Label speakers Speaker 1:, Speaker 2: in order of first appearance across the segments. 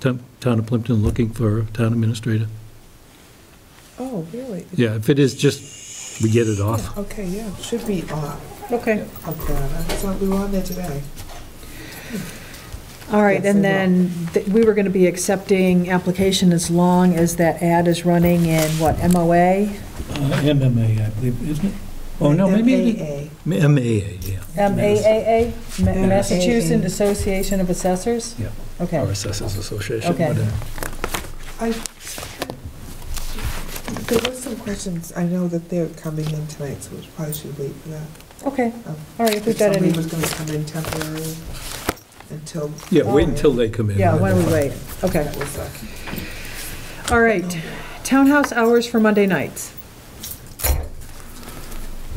Speaker 1: Town Town of Plimpton looking for a town administrator.
Speaker 2: Oh, really?
Speaker 1: Yeah, if it is just, we get it off.
Speaker 2: Okay, yeah, should be up,
Speaker 3: Okay,
Speaker 2: up there. I thought we were on there today.
Speaker 3: all right,
Speaker 2: Yes,
Speaker 3: and
Speaker 2: they will.
Speaker 3: then th- we were going to be accepting application as long as that ad is running in, what, MOA?
Speaker 1: MMA, I believe, isn't it? Oh, no, maybe, it
Speaker 2: MAA.
Speaker 1: is- MAA, yeah.
Speaker 3: MAAA, Ma-
Speaker 2: Yeah.
Speaker 3: Massachusetts Association of Assessors?
Speaker 1: Yeah. Our
Speaker 3: Okay,
Speaker 1: Assessors Association,
Speaker 3: Okay.
Speaker 1: whatever.
Speaker 2: I, there were some questions, I know that they're coming in tonight, so we probably should wait for that.
Speaker 3: okay,
Speaker 2: Um,
Speaker 3: all right, if we've
Speaker 2: If
Speaker 3: got
Speaker 2: somebody
Speaker 3: any,
Speaker 2: was gonna come in temporary until.
Speaker 1: Yeah, wait until they come in.
Speaker 3: yeah, why don't we wait? Okay,
Speaker 2: That was, uh,
Speaker 3: all right. Townhouse hours for Monday nights.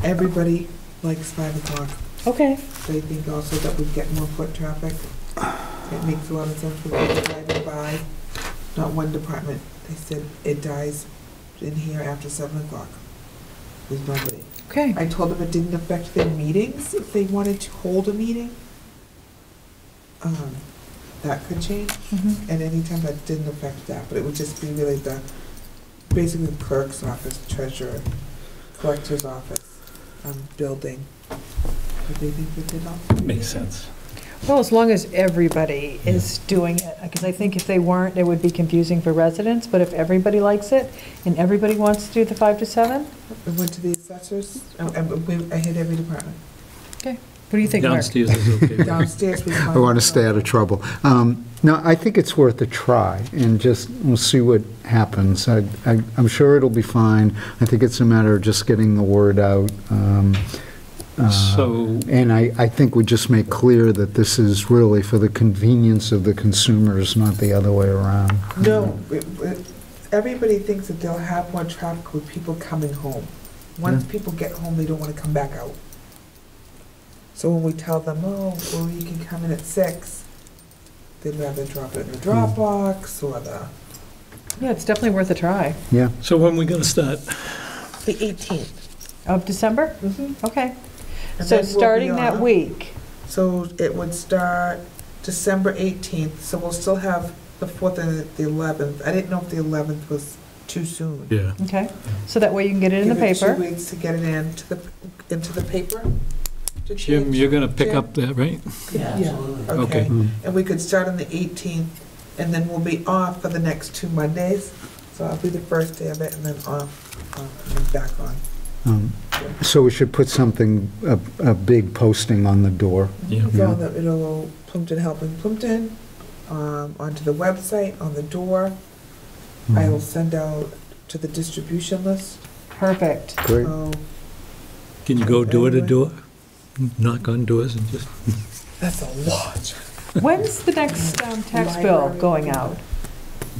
Speaker 2: everybody likes five o'clock.
Speaker 3: Okay,
Speaker 2: They think also that we'd get more foot traffic. It makes a lot of sense for people driving by, not one department. They said it dies in here after seven o'clock. There's nobody.
Speaker 3: okay,
Speaker 2: I told them it didn't affect their meetings, if they wanted to hold a meeting. Um, that could change
Speaker 3: mhm,
Speaker 2: at any time, that didn't affect that, but it would just be really the, basically the clerk's office, treasurer, collector's office, um, building. But they think that did all.
Speaker 1: Makes sense.
Speaker 3: well, as long as everybody is doing it, because I think if they weren't, it would be confusing for residents, but if everybody likes it, and everybody wants to do the five to seven,
Speaker 2: I went to the assessors, I, I- we- I hit every department.
Speaker 3: what do you think, Mark?
Speaker 1: Downstairs is okay. right?
Speaker 2: Downstairs was.
Speaker 4: I want to stay out of trouble. Um, No, I think it's worth a try, and just, we'll see what happens. I- I- I'm sure it'll be fine. I think it's a matter of just getting the word out. um, uh,
Speaker 1: So-
Speaker 4: And I I think we just make clear that this is really for the convenience of the consumers, not the other way around.
Speaker 2: No, it- it- everybody thinks that they'll have more traffic with people coming home. Once people get home, they don't want to come back out. So when we tell them, oh, well, you can come in at six, they'd rather drop it in the Dropbox or the.
Speaker 3: Yeah, it's definitely worth a try.
Speaker 4: Yeah,
Speaker 1: So when we gonna start?
Speaker 2: The eighteenth.
Speaker 3: Of December?
Speaker 2: Mm-hmm.
Speaker 3: Okay. So starting that week,
Speaker 2: So it would start December eighteenth, so we'll still have the fourth and the eleventh. I didn't know if the eleventh was too soon.
Speaker 1: Yeah.
Speaker 3: okay? So that way you can get it in the
Speaker 2: Give it two
Speaker 3: paper.
Speaker 2: weeks to get it into the, into the paper? to
Speaker 1: Jim,
Speaker 2: change.
Speaker 1: you're gonna pick
Speaker 2: Jim.
Speaker 1: up that, right?
Speaker 2: Yeah,
Speaker 5: absolutely.
Speaker 2: Okay,
Speaker 4: Mm.
Speaker 2: and we could start on the 18th, and then we'll be off for the next two Mondays. So I'll be the first day of it, and then off, um, and then back on.
Speaker 4: um, So we should put something, a a big posting on the door.
Speaker 1: Yeah.
Speaker 2: So that it'll go Plimpton Helping Plimpton, um, onto the website, on the door. I
Speaker 4: Mm-hmm.
Speaker 2: will send out to the distribution list. Um,
Speaker 3: Perfect.
Speaker 4: Great.
Speaker 2: So
Speaker 1: Can you go door to door? Knock on doors and just,
Speaker 2: that's a lot.
Speaker 3: When's the next um, tax bill
Speaker 2: Library.
Speaker 3: going out?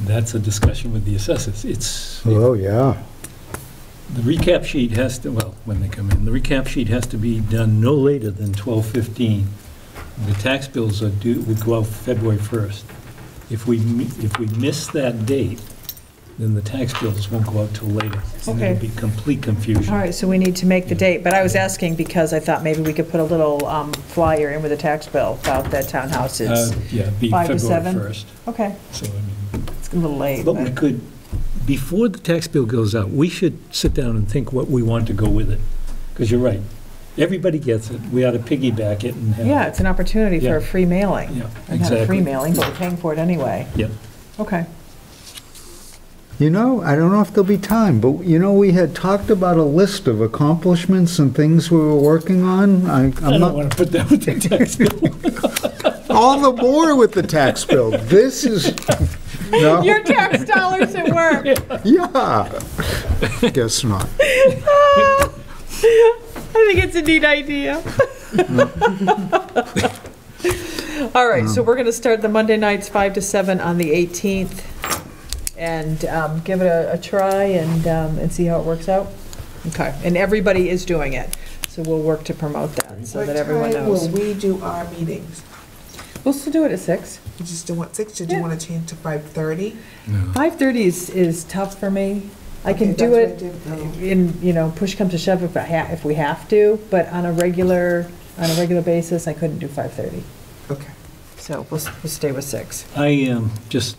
Speaker 1: that's a discussion with the assessors. It's, the
Speaker 4: Oh, yeah.
Speaker 1: recap sheet has to, well, when they come in, the recap sheet has to be done no later than 12:15. The tax bills are due, would go out February 1st. If we, mi- if we miss that date, then the tax bills won't go out till later. And
Speaker 3: Okay.
Speaker 1: it'll be complete confusion.
Speaker 3: All right, so we need to make the date, but I was asking because I thought maybe we could put a little um, flyer in with the tax bill about the
Speaker 1: Uh,
Speaker 3: townhouses.
Speaker 1: Yeah, be
Speaker 3: Five
Speaker 1: February
Speaker 3: to seven?
Speaker 1: 1st.
Speaker 3: Okay,
Speaker 1: So, I mean,
Speaker 3: it's a little late.
Speaker 1: But we
Speaker 3: but-
Speaker 1: could, before the tax bill goes out, we should sit down and think what we want to go with it. Because you're right, everybody gets it, we ought to piggyback it and have.
Speaker 3: Yeah, it's an opportunity for a
Speaker 1: Yeah.
Speaker 3: free mailing.
Speaker 1: Yeah,
Speaker 3: Or Not a free
Speaker 1: exactly.
Speaker 3: mailing, but we're paying for it anyway.
Speaker 1: Yeah.
Speaker 3: Okay,
Speaker 4: You know, I don't know if there'll be time, but you know, we had talked about a list of accomplishments and things we were working on. I-
Speaker 1: I
Speaker 4: I'm
Speaker 1: don't
Speaker 4: not,
Speaker 1: want to put that with the tax bill.
Speaker 4: all the more with the tax bill. This is, no,
Speaker 3: Your tax dollars at work.
Speaker 4: yeah. Guess not.
Speaker 3: I think it's a neat idea. All right, so we're going to start the Monday nights, 5 to 7 on the 18th, and um, give it a a try and, um, and see how it works out. Okay, and everybody is doing it, so we'll work to promote that, so that everyone
Speaker 2: What
Speaker 3: knows.
Speaker 2: time will we do our meetings?
Speaker 3: We'll still do it at 6.
Speaker 2: You just don't want six, did you
Speaker 3: Yeah.
Speaker 2: want to change to 5:30?
Speaker 3: 5:30 is, is tough for me. I can
Speaker 2: Okay,
Speaker 3: do
Speaker 2: that's
Speaker 3: it
Speaker 2: what I did.
Speaker 3: in, you know, push comes to shove if I ha, if we have to, but on a regular, on a regular basis, I couldn't do 5:30.
Speaker 2: Okay.
Speaker 3: So we'll, we'll stay with six.
Speaker 1: I, um, just